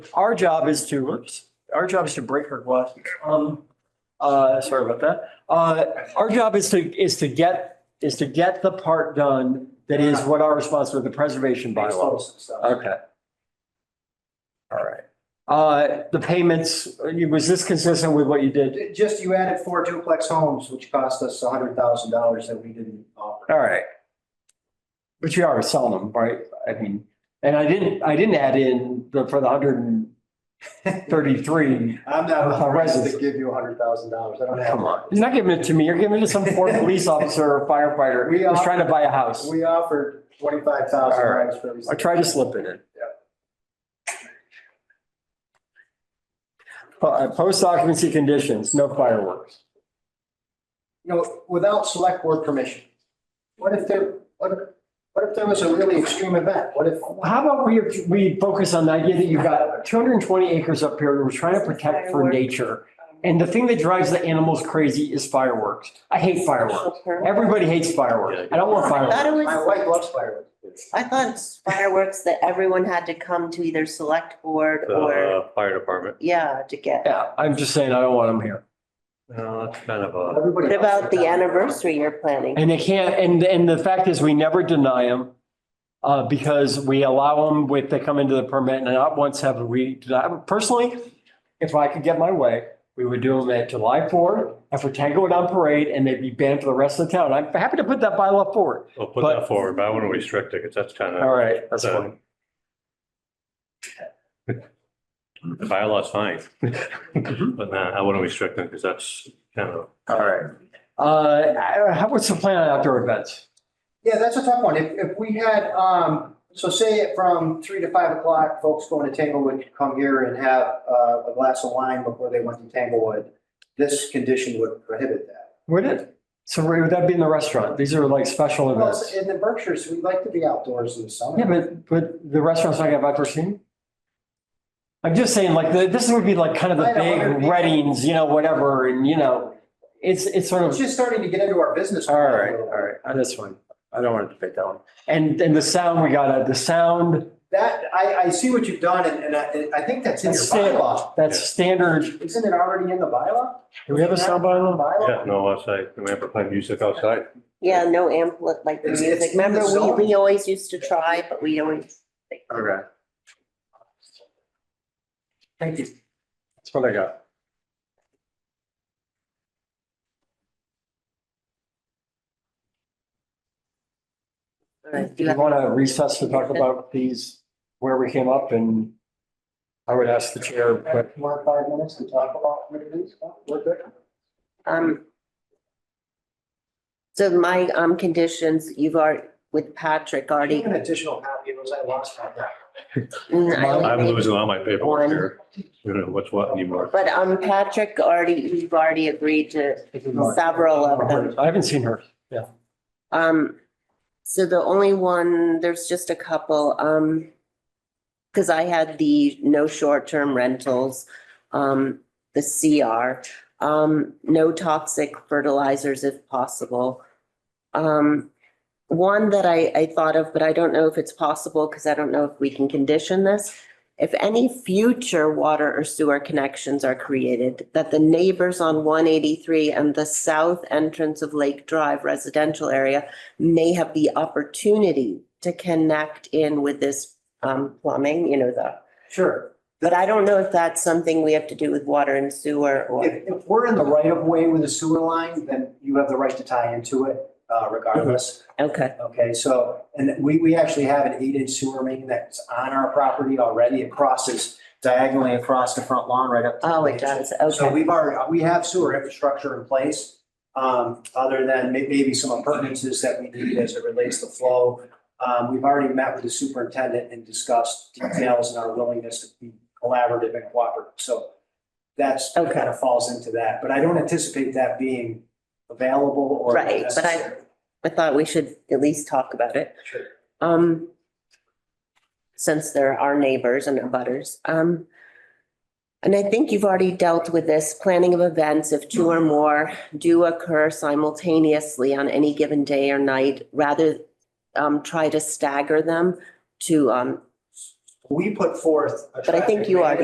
Our job is to, oops, our job is to break her glass. Um, uh, sorry about that. Uh, our job is to, is to get, is to get the part done that is what our responsibility, the preservation bylaws. Okay. All right. Uh, the payments, was this consistent with what you did? Just you added four duplex homes, which cost us a hundred thousand dollars that we didn't offer. All right. But you are selling them, right? I mean, and I didn't, I didn't add in the, for the hundred and thirty-three. I'm not authorized Residents. to give you a hundred thousand dollars. I don't have. Come on, you're not giving it to me. You're giving it to some poor police officer or firefighter We who's are- trying to buy a house. We offered twenty-five thousand All right. dollars for everything. I tried to slip it in. Po- uh, Post occupancy conditions, no fireworks. You know, without select board permission. What if there, what, what if there was a really extreme event? What if? How about we, we focus on the idea that you've got two hundred and twenty acres up here that we're trying to protect for nature. And the thing that drives the animals crazy is fireworks. I hate fireworks. Everybody hates fireworks. I don't want I thought fireworks. it My was, wife loves fireworks. I thought it's fireworks that everyone had to come to either select board the or, uh, fire department. yeah, to get. Yeah, I'm just saying, I don't want them here. No, that's kind of a, Everybody. What loves about the fireworks. anniversary you're planning? And they can't, and, and the fact is, we never deny them. Uh, because we allow them with, they come into the permit and not once have we, denied- personally, if I could get my way, we would do them at July fourth, after Tango and on parade, and they'd be banned for the rest of the town. I'm happy to put that bylaw forward. I'll put But- that forward, but I want to restrict it because that's kind All of, right, that's Uh, fine. the bylaw's fine. Mm-hmm. But nah, I want to restrict it because that's kind of, All right. Uh, how, what's the plan on outdoor events? Yeah, that's a tough one. If, if we had, um, so say from three to five o'clock, folks going to Tanglewood could come here and have uh, a glass of wine before they went to Tanglewood. This condition would prohibit that. Would it? So would that be in the restaurant? These are like special Well, events. in the Berkshires, we like to be outdoors in the Oh, Yeah, summer. but, but the restaurant's not gonna have outdoor seating? I'm just saying, like, the- this would be like kind of the I know, it'd big be- weddings, you know, whatever, and you know, it's, it's sort It's of, just starting to get into our business. all right, all right, on this one. I don't want to debate that one. And, and the sound, we got, uh, the sound, That, I, I see what you've done and, and I, I think that's in your It's standard. bylaw. that's standard. Isn't it already in the bylaw? Do we have a sound bylaw? yeah, Bylaw? no, outside, we have to play music outside. Yeah, no ampli, like the It's- it's music. in the Remember, zone. we, we always used to try, but we always, Okay. Thank you. That's what I got. Alright, uh, do Do you you have- want to recess to talk about these, where we came up and I would ask the chair, but More five minutes to talk about what it is. We're good. um. So my, um, conditions, you've already, with Patrick already, An additional copy of those I lost on that. Mm, I only I'm made- losing all my paperwork here. You know, what's what anymore. but, um, Patrick already, you've already agreed to several of them. I haven't seen her. Yeah. Um, so the only one, there's just a couple, um, because I had the no short-term rentals, um, the CR, um, no toxic fertilizers if possible. Um, one that I, I thought of, but I don't know if it's possible because I don't know if we can condition this. If any future water or sewer connections are created, that the neighbors on one eighty-three and the south entrance of Lake Drive residential area may have the opportunity to connect in with this um plumbing, you know, the. Sure. But I don't know if that's something we have to do with water and sewer or, If, if we're in the right of way with a sewer line, then you have the right to tie into it uh, regardless. okay, Okay, so, and we, we actually have an eight inch sewer main that's on our property already. It crosses diagonally across the front lawn right up. to the oh, main. it does, So okay, we've already, we have sewer infrastructure in place, um, other than may- maybe some appurtenances that we need as it relates to flow. Um, we've already met with the superintendent and discussed details and our willingness to be collaborative and cooperative, so that's, that Okay. kind of falls into that, but I don't anticipate that being available or Right, but I- necessary. I thought we should at least talk about it. Sure. Um, since they're our neighbors and abutters, um. And I think you've already dealt with this, planning of events if two or more do occur simultaneously on any given day or night, rather um, try to stagger them to um, We put forth. a But I think traffic you are management